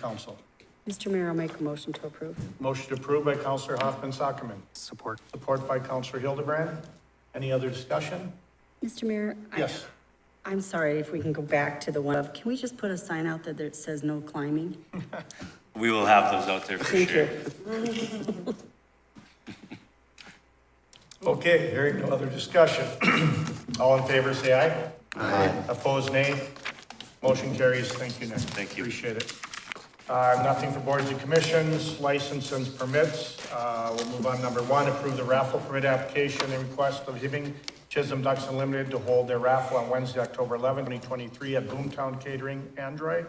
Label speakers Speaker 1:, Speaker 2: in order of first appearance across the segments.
Speaker 1: council.
Speaker 2: Mr. Mayor, I'll make a motion to approve.
Speaker 1: Motion approved by Counselor Hoffman Sockman,
Speaker 3: Support.
Speaker 1: support by Counselor Hildebrand. Any other discussion?
Speaker 2: Mr. Mayor? I-
Speaker 1: Yes.
Speaker 2: I'm sorry if we can go back to the one of, can we just put a sign out there that says no climbing?
Speaker 4: We will have those out there for
Speaker 2: Thank
Speaker 4: sure.
Speaker 2: you.
Speaker 1: Okay, hearing no other discussion. All in favor, say aye. Aye. Opposed, nay. Motion carries. Thank you, Nick.
Speaker 4: Thank you.
Speaker 1: Appreciate it. Uh, nothing for boards and commissions, licenses, permits. Uh, we'll move on. Number one, approve the raffle permit application and request of Hibbing Chisholm Ducks Unlimited to hold their raffle on Wednesday, October 11, 2023 at Boomtown Catering, Android.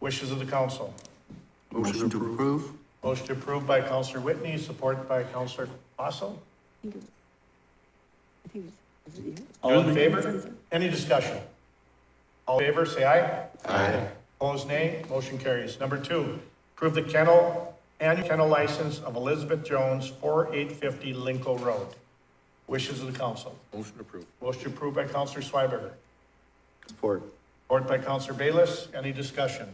Speaker 1: Wishes of the council.
Speaker 3: Motion to approve.
Speaker 1: Motion approved by Counselor Whitney, support by Counselor Fossil. All in favor? Any discussion? All in favor, say aye. Aye. Opposed, nay. Motion carries. Number two, approve the kennel, annual kennel license of Elizabeth Jones, 4850 Lincoln Road. Wishes of the council.
Speaker 3: Motion approved.
Speaker 1: Motion approved by Counselor Schweberger.
Speaker 3: Support.
Speaker 1: Support by Counselor Bayless. Any discussion?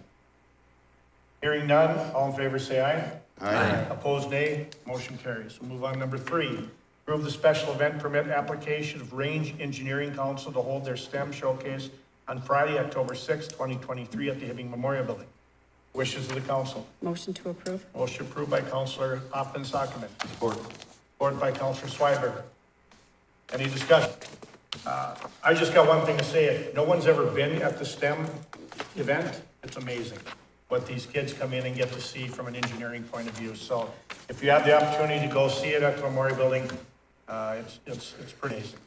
Speaker 1: Hearing none, all in favor say aye. Aye. Opposed nay, motion carries. We'll move on to number three. Approve the special event permit application of Range Engineering Council to hold their STEM showcase on Friday, October sixth, twenty twenty-three at the Hibbing Memorial Building. Wishes of the council.
Speaker 2: Motion to approve?
Speaker 1: Motion approved by Counselor Hoffman Sockman.
Speaker 3: Support.
Speaker 1: Support by Counselor Schweberger. Any discussion? Uh, I just got one thing to say. If no one's ever been at the STEM event, it's amazing what these kids come in and get to see from an engineering point of view. So if you have the opportunity to go see it at the Memorial Building, uh, it's, it's, it's pretty amazing.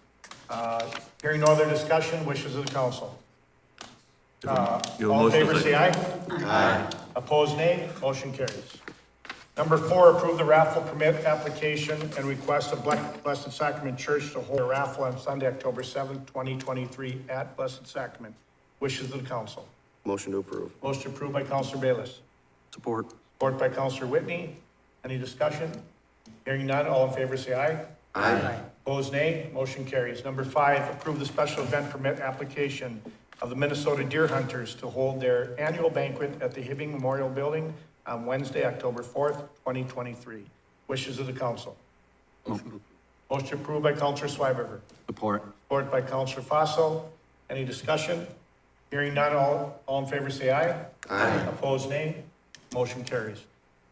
Speaker 1: Uh, Hearing no other discussion, wishes of the council. Uh,
Speaker 5: Your
Speaker 1: All in
Speaker 5: motion is
Speaker 1: favor,
Speaker 5: like-
Speaker 1: say aye. Aye. Opposed, nay. Motion carries. Number four, approve the raffle permit application and request of Ble- Blessed Sacrament Church to hold a raffle on Sunday, October seventh, twenty twenty-three at Blessed Sacrament. Wishes of the council.
Speaker 3: Motion to approve.
Speaker 1: Motion approved by Counselor Bayless.
Speaker 3: Support.
Speaker 1: Support by Counselor Whitney. Any discussion? Hearing none, all in favor say aye. Aye. Opposed, nay. Motion carries. Number five, approve the special event permit application of the Minnesota Deer Hunters to hold their annual banquet at the Hibbing Memorial Building on Wednesday, October fourth, twenty twenty-three. Wishes of the council. Motion approved by Counselor Schweberger.
Speaker 5: Support.
Speaker 1: Support by Counselor Fossil. Any discussion? Hearing none, all, all in favor say aye. Aye. Opposed, nay. Motion carries.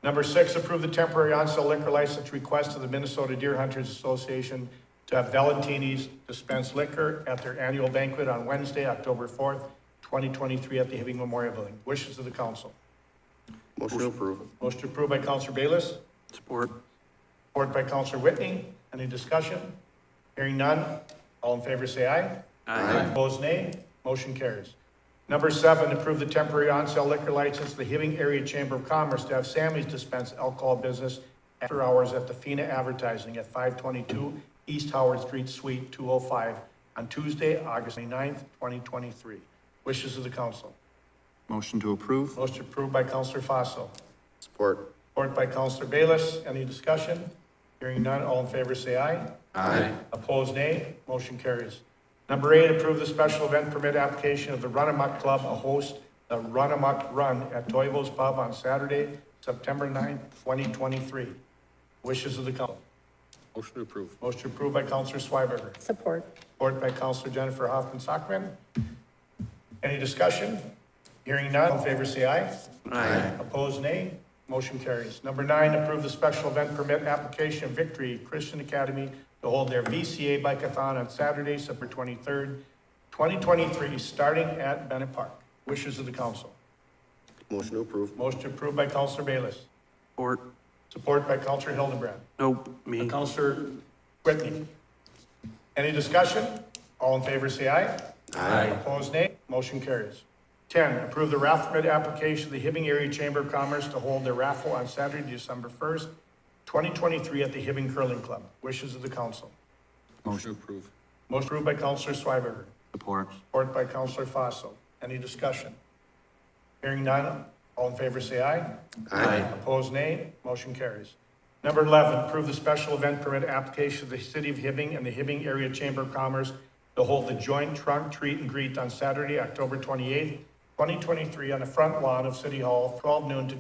Speaker 1: Number six, approve the temporary on-sale liquor license request of the Minnesota Deer Hunters Association to have Valentini's dispense liquor at their annual banquet on Wednesday, October fourth, twenty twenty-three at the Hibbing Memorial Building. Wishes of the council.
Speaker 3: Motion to approve.
Speaker 1: Motion approved by Counselor Bayless.
Speaker 3: Support.
Speaker 1: Support by Counselor Whitney. Any discussion? Hearing none. All in favor, say aye. Aye. Opposed, nay. Motion carries. Number seven, approve the temporary on-sale liquor license, to the Hibbing Area Chamber of Commerce to have Sammy's dispense alcohol business after hours at the Fina Advertising at five twenty-two East Howard Street, Suite two oh five on Tuesday, August 29th, twenty twenty-three. Wishes of the council.
Speaker 5: Motion to approve.
Speaker 1: Motion approved by Counselor Fossil.
Speaker 3: Support.
Speaker 1: Support by Counselor Bayless. Any discussion? Hearing none, all in favor say aye.
Speaker 3: Aye.
Speaker 1: Opposed, nay. Motion carries. Number eight, approve the special event permit application of the Run Amok Club to host the Run Amok Run at Toivo's Pub on Saturday, September 9th, 2023. Wishes of the council.
Speaker 3: Motion to approve.
Speaker 1: Motion approved by Counselor Schweberger.
Speaker 2: Support.
Speaker 1: Support by Counselor Jennifer Hoffman Sockman. Any discussion? Hearing none, all in favor say aye. Aye. Opposed, nay. Motion carries. Number nine, approve the special event permit application of Victory Christian Academy to hold their VCA Bikeathon on Saturday, September twenty-third, twenty twenty-three, starting at Bennett Park. Wishes of the council.
Speaker 3: Motion to approve.
Speaker 1: Motion approved by Counselor Bayless.
Speaker 6: Or,
Speaker 1: Support by Counselor Hildebrand.
Speaker 6: nope, me.
Speaker 1: Counselor Whitney. Any discussion? All in favor, say aye. Aye. Opposed, nay. Motion carries. Ten, approve the raffle permit application of the Hibbing Area Chamber of Commerce to hold their raffle on Saturday, December first, twenty twenty-three at the Hibbing Curling Club. Wishes of the council.
Speaker 3: Motion to approve.
Speaker 1: Motion approved by Counselor Schweberger,
Speaker 5: Support.
Speaker 1: support by Counselor Fossil. Any discussion? Hearing none, all in favor, say aye.
Speaker 3: Aye.
Speaker 1: Opposed, nay. Motion carries. Number 11, approve the special event permit application of the City of Hibbing and the Hibbing Area Chamber of Commerce to hold the joint trunk treat and greet on Saturday, October 28th, 2023, on the front lawn of City Hall, 12 noon to